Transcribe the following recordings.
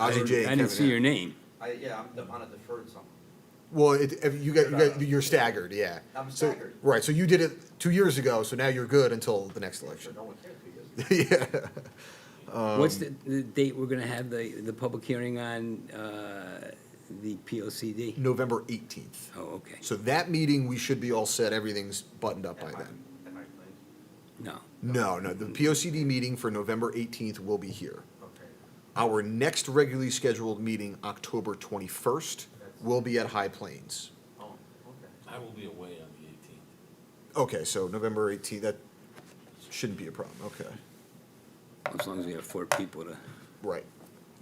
I didn't- RJ, I didn't see Kevin, your name. I, yeah, I'm de- on a deferred something. Well, it, if you got, you got, you're staggered, yeah. I'm So- staggered. Right, so you did it two years ago, so now you're good until the next Sure, election. no one cares who he is. Yeah, Um, What's the, the date we're gonna have the, the public hearing on, uh, the P O C D? November eighteenth. Oh, okay, So that meeting, we should be all set, everything's buttoned up At by my- then. at my place. no. No, no, the P O C D meeting for November eighteenth will be here. Okay, Our next regularly scheduled meeting, October twenty-first, will be at High Plains. oh, okay. I will be away on the eighteenth. Okay, so November eighteenth, that shouldn't be a problem, okay. As long as we have four people to, Right.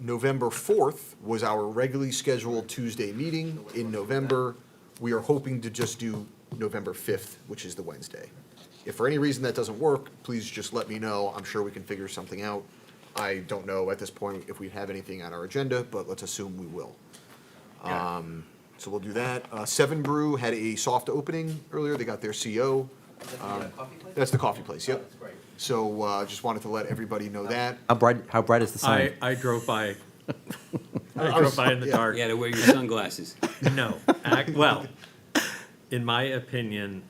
November 4th was our regularly scheduled Tuesday meeting. In November, we are hoping to just do November 5th, which is the Wednesday. If for any reason that doesn't work, please just let me know. I'm sure we can figure something out. I don't know at this point if we have anything on our agenda, but let's assume we will. Um, So we'll do that. Uh, Seven Brew had a soft opening earlier. They got their CO. Is that the uh, coffee place? That's the coffee place, Oh, Um, yep. That's great. So uh, just wanted to let everybody know that. How bright, how bright is the I, sign? I drove I by. I was- drove by in the yeah. dark. you gotta wear your sunglasses. No, ac- well, in my opinion,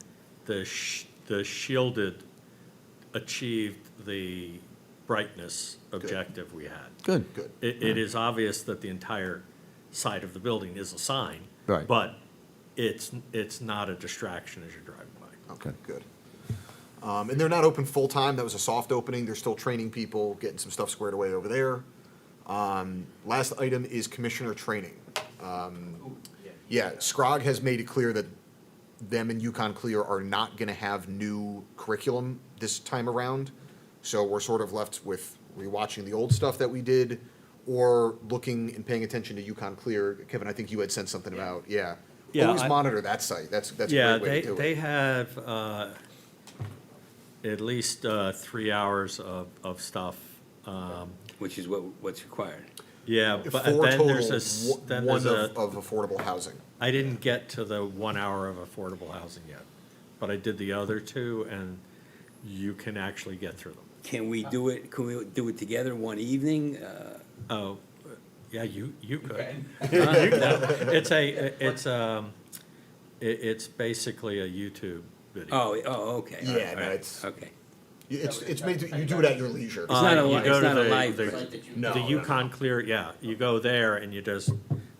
the sh- the shielded achieved the brightness objective we had. Good. Good. It, it is obvious that the entire side of the building is a sign. Right. But it's, it's not a distraction as you're driving by. Okay, good. Um, and they're not open full-time, that was a soft opening, they're still training people, getting some stuff squared away over there. Um, last item is commissioner training. Um, Ooh, yeah. Yeah, Scrog has made it clear that them and Yukon Clear are not gonna have new curriculum this time around. So we're sort of left with rewatching the old stuff that we did, or looking and paying attention to Yukon Clear. Kevin, I think you had sent something about, yeah. Yeah, Always I- monitor that site, that's, that's a Yeah, great way they, to do it. they have, uh, at least, uh, three hours of, of stuff. Um, Which is what, what's required. Yeah, but uh, Four then there's a, total, s- one then one there's a, of, uh, of affordable housing. I didn't get to the one hour of affordable housing yet, but I did the other two, and you can actually get through them. Can we do it, can we do it together one evening? Uh, Oh, yeah, you, you could. Okay. You- no, It's a, it's, um, i it's basically a YouTube video. Oh, oh, okay. Yeah, all right, no, all right, it's- Okay. It's, it's made, to- you do it at your leisure. It's not a, Uh, you li- go it's to not a the- live, the- version. No, The no, no. Yukon Clear, yeah, you go there and you just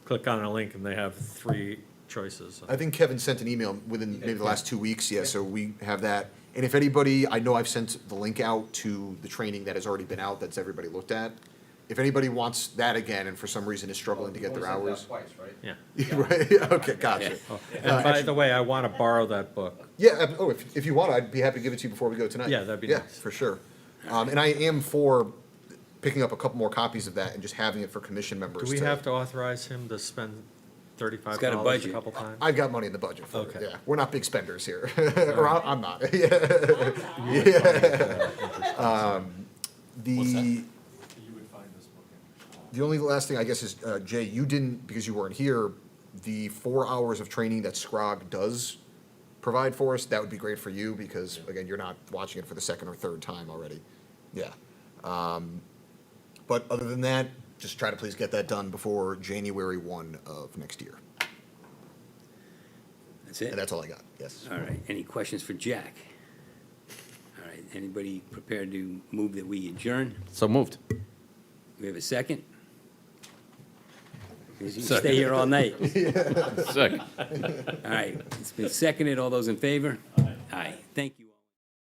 click on a link and they have three choices. I think Kevin sent an email within maybe the last two weeks, yeah, so we have that. And if anybody, I know I've sent the link out to the training that has already been out, that's everybody looked at. If anybody wants that again and for some reason is struggling to You've get their only hours. sent Oh, it out Twice, right? Yeah. Right, okay, gotcha. Uh, Uh, And by the way, I want to borrow that book. Yeah, ab- oh, if, if you want, I'd be happy to give it to you before we go tonight. Yeah, that'd be Yeah, nice. for sure. Um, and I am for picking up a couple more copies of that and just having it for commission members. Do we have to authorize him to spend thirty-five got a dollars a budget. couple times? I've got money in the budget for it, Okay. yeah. We're not big spenders here, or I- I'm not, yeah. Um, The, You would find this book in. the only last thing I guess is, uh, Jay, you didn't, because you weren't here, the four hours of training that Scrog does provide for us, that would be great for you, because again, you're not watching it for the second or third time already. Yeah. Um, But other than that, just try to please get that done before January one of next year. that's And it? that's all I got, yes. All right, any questions for Jack? All right, anybody prepared to move that we adjourn? So moved. We have a second? 'Cause You can stay here all night. Second. All right, it's been seconded, all those in favor? Aye. Thank you.